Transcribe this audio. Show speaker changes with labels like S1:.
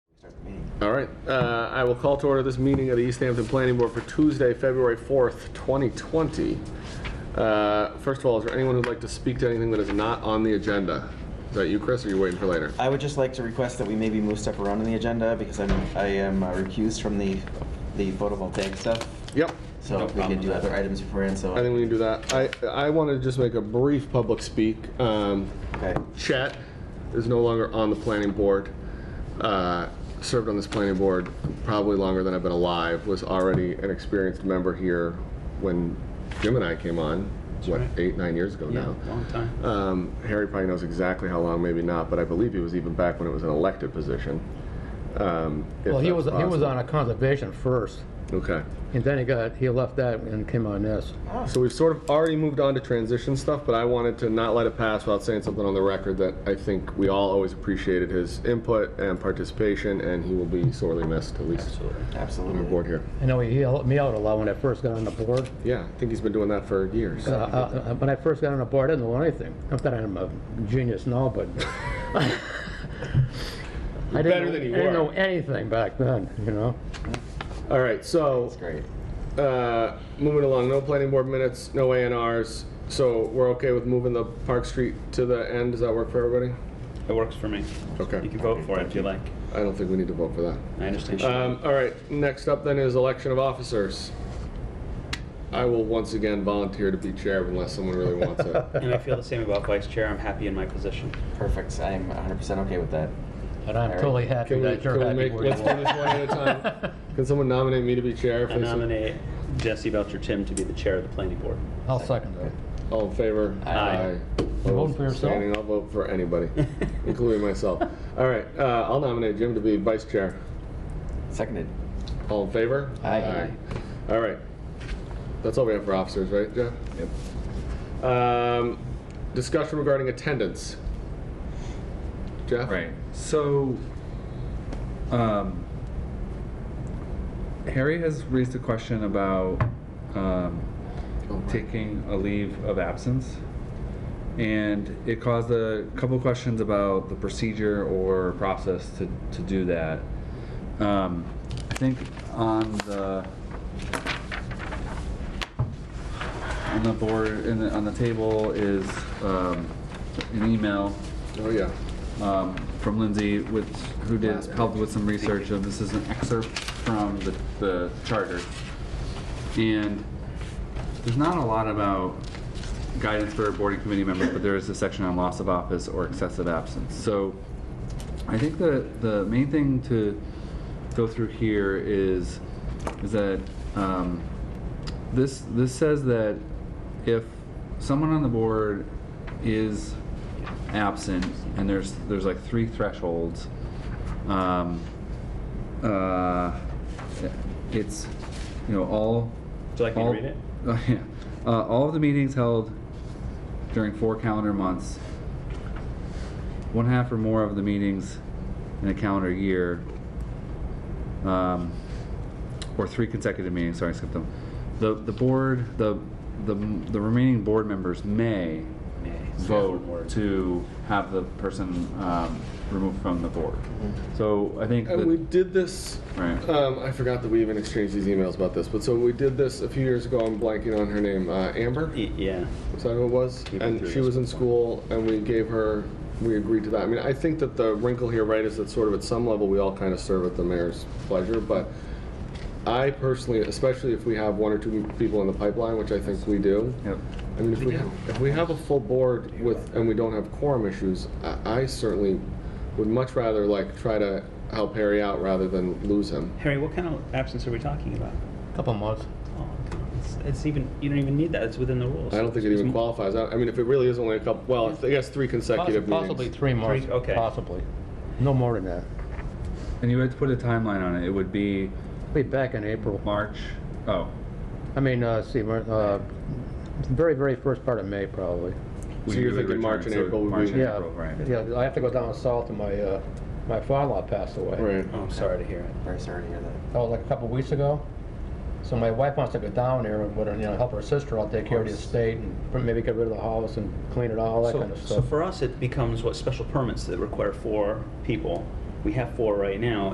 S1: All right, uh, I will call to order this meeting of the East Hampton Planning Board for Tuesday, February 4th, 2020. Uh, First of all, is there anyone who'd like to speak to anything that is not on the agenda? Is that you, Chris, or are you waiting for later?
S2: I would just like to request that we maybe move stuff around in the agenda because I'm, I am uh, recused from the, the photovoltaic stuff.
S1: Yep,
S2: So um, we can do other items beforehand, so.
S1: I think we can do that. I, I want to just make a brief public speak. Um,
S2: Okay,
S1: Chet is no longer on the planning board. Uh, Served on this planning board probably longer than I've been alive, was already an experienced member here when Jim and I came on, what, eight, nine years ago now?
S3: Long time.
S1: Um, Harry probably knows exactly how long, maybe not, but I believe he was even back when it was an elected position. Um, Well,
S4: Well, he was, he was on a conservation first,
S1: Okay.
S4: and then he got, he left that and came on this.
S1: So we've sort of already moved on to transition stuff, but I wanted to not let it pass without saying something on the record that I think we all always appreciated his input and participation, and he will be sorely missed, at least on our
S2: absolutely.
S1: board here.
S4: I know he helped me out a lot when I first got on the board.
S1: Yeah, I think he's been doing that for years.
S4: Uh, uh, When I first got on the board, I didn't know anything. Not that I'm a genius now, but. I didn't
S1: better
S4: know-
S1: than you
S4: I didn't
S1: are.
S4: know anything back then, you know?
S1: All right, so,
S2: That's great.
S1: uh, moving along, no planning board minutes, no A and Rs, so we're okay with moving the Park Street to the end, does that work for everybody?
S3: It works for me.
S1: Okay.
S3: You can vote for it if you like.
S1: I don't think we need to vote for that.
S3: I understand.
S4: Uh,
S1: Um, all right, next up then is election of officers. I will once again volunteer to be chair unless someone really wants it.
S3: And I feel the same about vice chair. I'm happy in my position.
S2: Perfect. I am 100% okay with that.
S4: And I'm totally happy
S1: Can we,
S4: that
S1: can
S4: you're
S1: we
S4: happy
S1: make,
S4: where you
S1: let's do this
S4: are.
S1: one at a time. Can someone nominate me to be chair?
S3: I
S1: please?
S3: nominate Jesse Belcher Tim to be the chair of the planning board.
S4: I'll second that.
S1: All in favor?
S3: Aye.
S4: You're voting for yourself?
S1: Standing, I'll vote for anybody, including myself. All right, uh, I'll nominate Jim to be vice chair.
S2: Seconded.
S1: All in favor?
S2: Aye.
S1: All right. That's all we have for officers, right, Jeff? Yep. Um, discussion regarding attendance. Jeff?
S5: Right. So, um, Harry has raised a question about um, taking a leave of absence. And it caused a couple questions about the procedure or process to, to do that. Um, I think on the, on the board, in the, on the table is um, an email
S1: Oh, yeah.
S5: um, from Lindsay, which, who did, helped with some research, and this is an excerpt from the, the charter. And there's not a lot about guidance for board and committee members, but there is a section on loss of office or excessive absence. So I think the, the main thing to go through here is, is that, um, this, this says that if someone on the board is absent, and there's, there's like three thresholds, um, uh, it's, you know, all.
S3: Would you like me to
S5: all-
S3: read it?
S5: Oh, yeah. Uh, all of the meetings held during four calendar months, one half or more of the meetings in a calendar year, um, or three consecutive meetings, sorry, I skipped them. The, the board, the, the, the remaining board members may
S3: Nay.
S5: vote to have the person, um, removed from the board. So I think
S1: And we
S5: that,
S1: did this,
S5: Right.
S1: um, I forgot that we even exchanged these emails about this, but so we did this a few years ago, I'm blanking on her name, uh, Amber?
S3: Y- Yeah.
S1: Is that who it was?
S3: been
S1: And
S3: through
S1: she
S3: this
S1: was in school, and we gave her, we agreed to that. I mean, I think that the wrinkle here, right, is that sort of at some level, we all kind of serve at the mayor's pleasure, but I personally, especially if we have one or two people in the pipeline, which I think we do,
S5: yep,
S1: I mean, if we, if we have a full board with, and we don't have quorum issues, I I certainly would much rather like try to help Harry out rather than lose him.
S3: Harry, what kind of absence are we talking about?
S4: Couple months.
S3: Oh, come on. It's, it's even, you don't even need that. It's within the rules.
S1: I don't think it even qualifies. I I mean, if it really is only a couple, well, I guess three consecutive meetings.
S4: Possibly three months,
S3: Three, okay.
S4: possibly. No more than that.
S5: and you had to put a timeline on it, it would be
S4: Be back in April.
S5: March, oh,
S4: I mean, uh, see, we're, uh, very, very first part of May, probably.
S1: So
S5: We
S1: you're
S5: do it
S1: thinking
S5: return,
S1: March and
S5: so
S1: April would
S5: March
S1: be-
S5: and
S4: Yeah,
S5: April, right.
S4: yeah, I have to go down south and my, uh, my father-in-law passed away.
S1: Right.
S3: Oh, I'm sorry to hear it.
S2: Very sorry to hear that.
S4: That was like a couple weeks ago. So my wife wants to go down there and, with her, you know, help her sister out, take care of the estate and maybe get rid of the house and clean it all, that
S3: So-
S4: kind of
S3: So
S4: stuff.
S3: for us, it becomes what special permits that require four people. We have four right now,